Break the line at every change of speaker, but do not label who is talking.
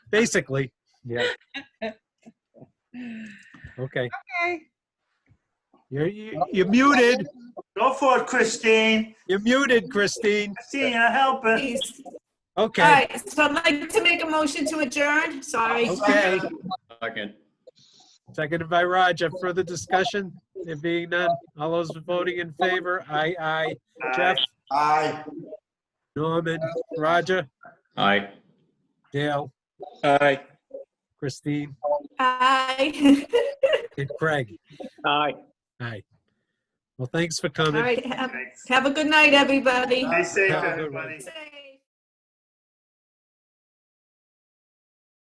basically.
Yeah.
Okay.
Okay.
You're, you- you're muted.
Go for it, Christine.
You're muted, Christine.
Christina, help us.
Please. All
Okay.
right, so I'd like to make a motion to adjourn. Sorry.
Okay.
Second.
Seconded by Roger. Further discussion? There being none. All those voting in favor? Aye, aye. Jeff,
Aye.
Norman, Roger,
Aye.
Dale,
Aye.
Christine,
Hi.
and Craig.
Aye.
Aye. Well, thanks for
All
coming.
right, have,
Thanks.
have a good night, everybody.
Be safe,
Have a good one.
everybody.
Say-